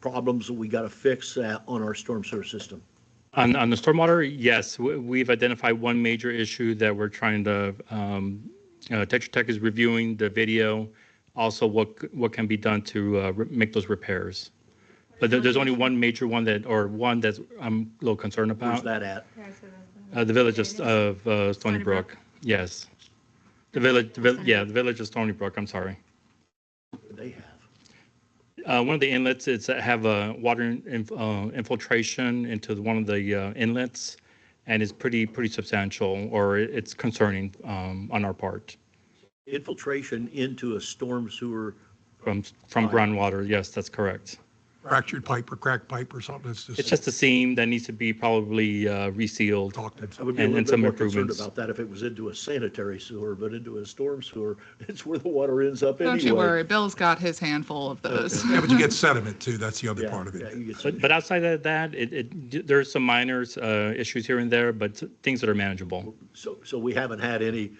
problems that we got to fix uh, on our storm sewer system? On, on the stormwater, yes, we- we've identified one major issue that we're trying to, um, uh, Tetra Tech is reviewing the video, also what, c- what can be done to uh, re- make those repairs. But there- there's only one major one that, or one that's I'm a little concerned Where's about, that at? Uh, the village is- of uh, Stony Stony Brook. Brook, yes. The village, the vill- yeah, the village of Stony Brook, I'm sorry. They have. Uh, one of the inlets is that have a water inf- uh, infiltration into the- one of the uh, inlets, and it's pretty pretty substantial, or it- it's concerning um, on our part Infiltration into a storm sewer, from from groundwater. Yes, that's correct. fractured pipe or cracked pipe or something. It's It's just, just a seam that needs to be probably uh, resealed. talked I would be a And- little and bit some more concerned improvements. about that if it was into a sanitary sewer, but into a storm sewer, it's where the water ends up anyway. Don't you worry, Bill's got his handful of those. yeah, but you get sediment too. That's the other Yeah, part of yeah, it. you get some- But, but outside of that, it, it, there's some minor uh, issues here and there, but things that are manageable. So, so we haven't had any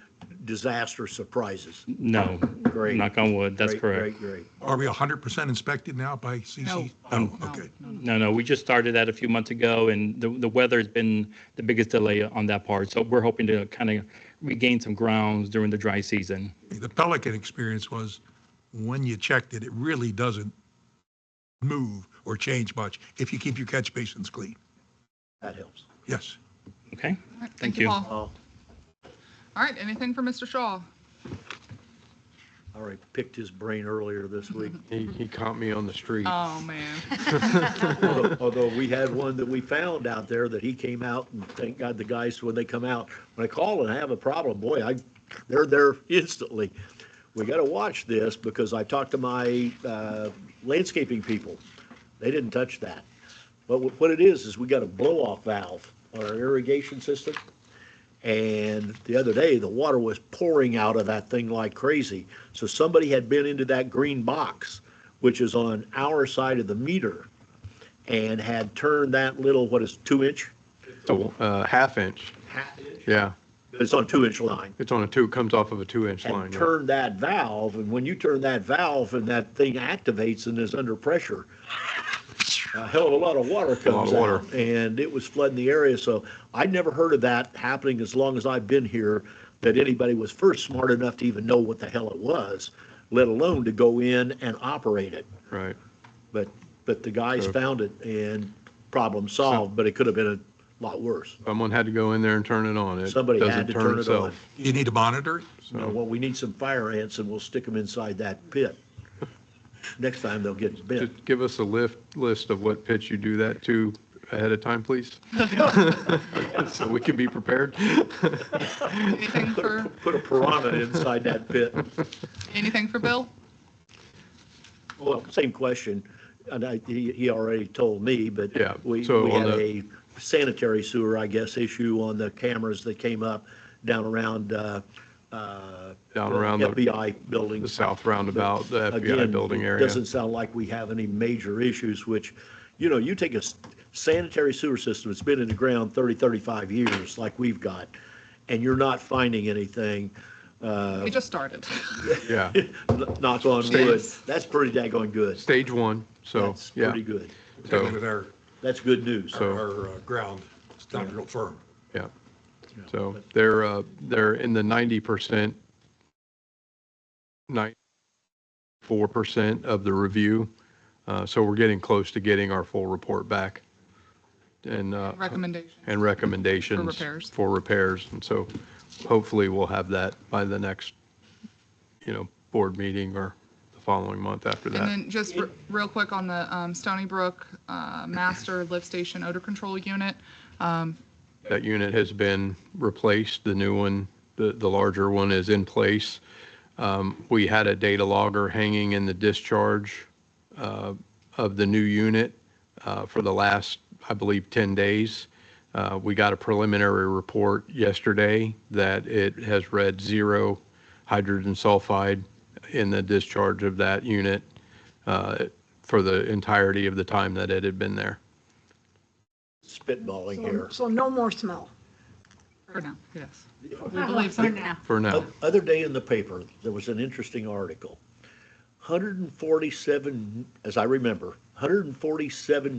disaster surprises. No, Great. knock on wood. That's Great, correct. Great, great. Are we hundred percent inspected now by CC? No, No, okay. no, no. No, no, we just started that a few months ago, and the, the weather's been the biggest delay on that part. So we're hoping to kind of regain some grounds during the dry season. The Pelican experience was when you checked it, it really doesn't move or change much if you keep your catch basins clean. That helps. Yes. Okay? All right, Thank Thank you, you. Paul. Oh, All right, anything for Mr. Shaw? all right, picked his brain earlier this week. He, he caught me on the street. Oh, man. Although although we had one that we found out there that he came out and thank God the guys, when they come out, when I call and I have a problem, boy, I, they're there instantly. We got to watch this because I talked to my uh, landscaping people. They didn't touch that. But wh- what it is, is we got a blow-off valve on our irrigation system. And the other day, the water was pouring out of that thing like crazy. So somebody had been into that green box, which is on our side of the meter and had turned that little, what is two inch? So, uh, half inch. Half inch? Yeah. It's on two inch line. It's on a two, it comes off of a two inch line. And yeah. turned that valve, and when you turn that valve and that thing activates and is under pressure, a hell of a lot of water lot of comes water. out. And it was flooding the area, so I'd never heard of that happening as long as I've been here, that anybody was first smart enough to even know what the hell it was, let alone to go in and operate it. Right. But, but the guys Sure. found it and problem solved, but it could have been a lot worse. Someone had to go in there and turn it on. It Somebody had doesn't to turn it itself. on. You need to monitor it. You know, So- well, we need some fire ants and we'll stick them inside that pit. Next time they'll get bit. Just give us a lift, list of what pits you do that to ahead of time, please. So we can be prepared. Anything for, Put a piranha inside that pit. anything for Bill? Well, same question, and I, he, he already told me, but Yeah, we, so we on had a the- sanitary sewer, I guess, issue on the cameras that came up down around, uh, uh, Down around the- FBI building. the south roundabout, the FBI Again, building area. Doesn't sound like we have any major issues, which, you know, you take a s- sanitary sewer system that's been in the ground 30, 35 years, like we've got, and you're not finding anything, We just started. Yeah. knock on wood, States. that's pretty daggone good. Stage one. So, That's yeah. pretty good. So- With our, That's good news. So- our uh, ground, it's not real firm. Yeah. So they're, uh, they're in the ninety percent, ninety-four percent of the review. Uh, so we're getting close to getting our full report back and, uh, Recommendation. and recommendations. repairs. For repairs. And so hopefully we'll have that by the next, you know, board meeting or the following month after And that. then just re- real quick on the um, Stony Brook uh, Master Lift Station Odor Control Unit. That unit has been replaced. The new one, the, the larger one is in place. Um, We had a data logger hanging in the discharge uh, of the new unit uh, for the last, I believe, 10 days. Uh, We got a preliminary report yesterday that it has read zero hydrogen sulfide in the discharge of that unit uh, for the entirety of the time that it had been there. Spitballing here. So no more smell. For now, yes. We believe so. For now. For now, O- Other day in the paper, there was an interesting article. 147, as I remember, hundred and forty-seven